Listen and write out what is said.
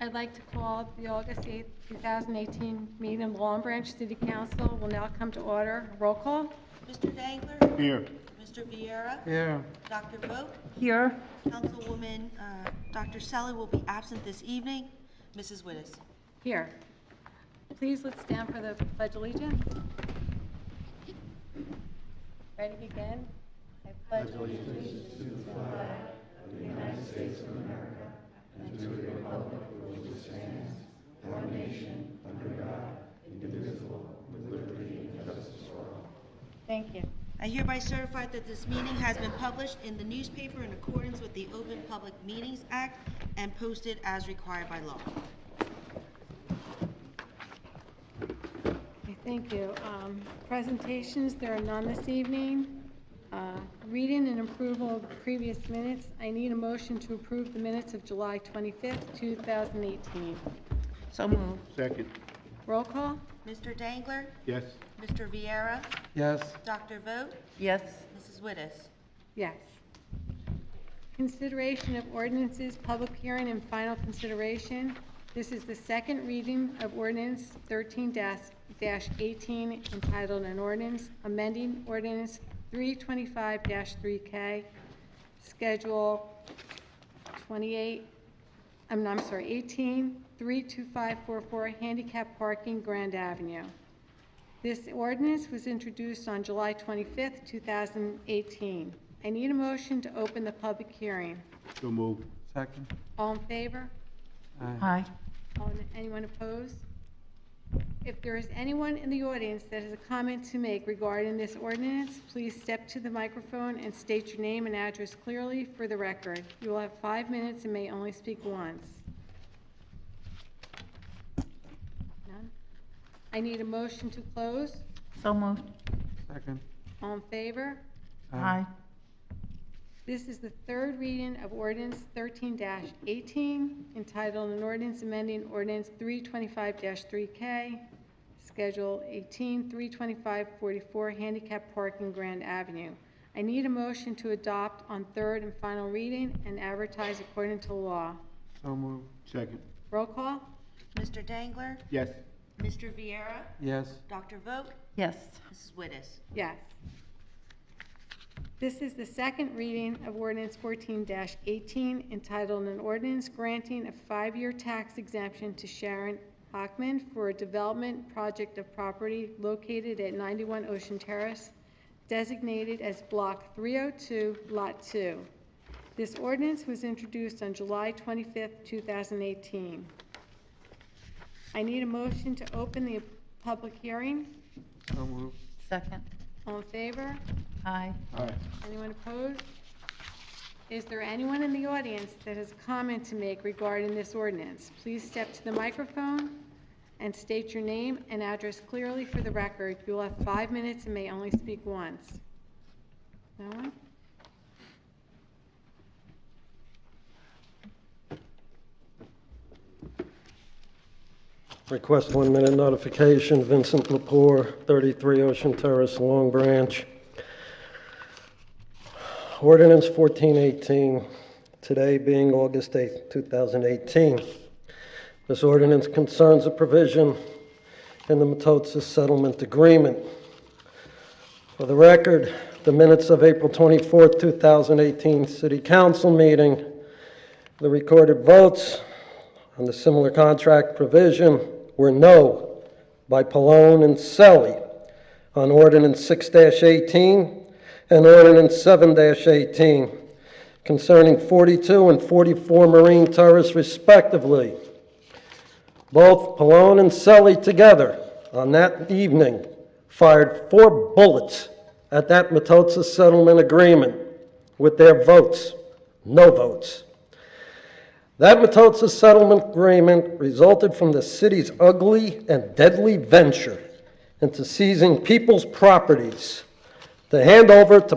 I'd like to call the August 8th, 2018 meeting of Long Branch City Council will now come to order. Roll call. Mr. Dangler? Here. Mr. Viera? Yeah. Dr. Vogt? Here. Councilwoman, uh, Dr. Sally will be absent this evening. Mrs. Wittes? Here. Please, let's stand for the pledge allegiance. Ready to begin? I pledge allegiance to the flag of the United States of America and to the republic for which it stands, one nation, under God, indivisible, with liberty and justice for all. Thank you. I hereby certify that this meeting has been published in the newspaper in accordance with the Open Public Meetings Act and posted as required by law. Okay, Thank you. Um, Presentations, there are none this evening. Uh, Reading and approval of previous minutes, I need a motion to approve the minutes of July 25th, 2018. So moved. Second. Roll call? Mr. Dangler? Yes. Mr. Viera? Yes. Dr. Vogt? Yes. Mrs. Wittes? Yes. Consideration of ordinances, public hearing and final consideration. This is the second reading of ordinance 13-18 entitled an ordinance amending ordinance 325-3K, Schedule 28, I'm, I'm sorry, 18, 32544 handicap parking, Grand Avenue. This ordinance was introduced on July 25th, 2018. I need a motion to open the public hearing. So move. Second. All in favor? Aye. All- Anyone opposed? If there is anyone in the audience that has a comment to make regarding this ordinance, please step to the microphone and state your name and address clearly for the record. You will have five minutes and may only speak once. None? I need a motion to close. So moved. Second. All in favor? Aye. This is the third reading of ordinance thirteen eighteen, entitled an ordinance amending ordinance three twenty-five three K, Schedule 18, 325 44, handicap parking Grand Avenue. I need a motion to adopt on third and final reading and advertise according to law. So move. Second. Roll call? Mr. Dangler? Yes. Mr. Viera? Yes. Dr. Vogt? Yes. Mrs. Wittes? Yes. This is the second reading of ordinance fourteen eighteen entitled an ordinance granting a five-year tax exemption to Sharon Hockman for a development project of property located at ninety-one Ocean Terrace designated as block three oh two, lot two. This ordinance was introduced on July twenty-fifth, two thousand eighteen. I need a motion to open the public hearing. So move. Second. All in favor? Aye. Aye. Anyone opposed? Is there anyone in the audience that has a comment to make regarding this ordinance? Please step to the microphone and state your name and address clearly for the record. You will have five minutes and may only speak once. No one? Request one-minute notification, Vincent Lepore, 33 Ocean Terrace, Long Branch. Ordinance 1418, today being August 8, 2018. This ordinance concerns a provision in the Metotsys Settlement Agreement. For the record, the minutes of April 24, 2018 City Council meeting, the recorded votes, on the similar contract provision were no by Pallone and Selly on ordinance six eighteen and ordinance seven eighteen concerning forty-two and forty-four Marine Terrace respectively. Both Pallone and Selly together on that evening fired four bullets at that Metotsys settlement agreement with their votes, no votes. That Metotsys settlement agreement resulted from the city's ugly and deadly venture into seizing people's properties to hand over to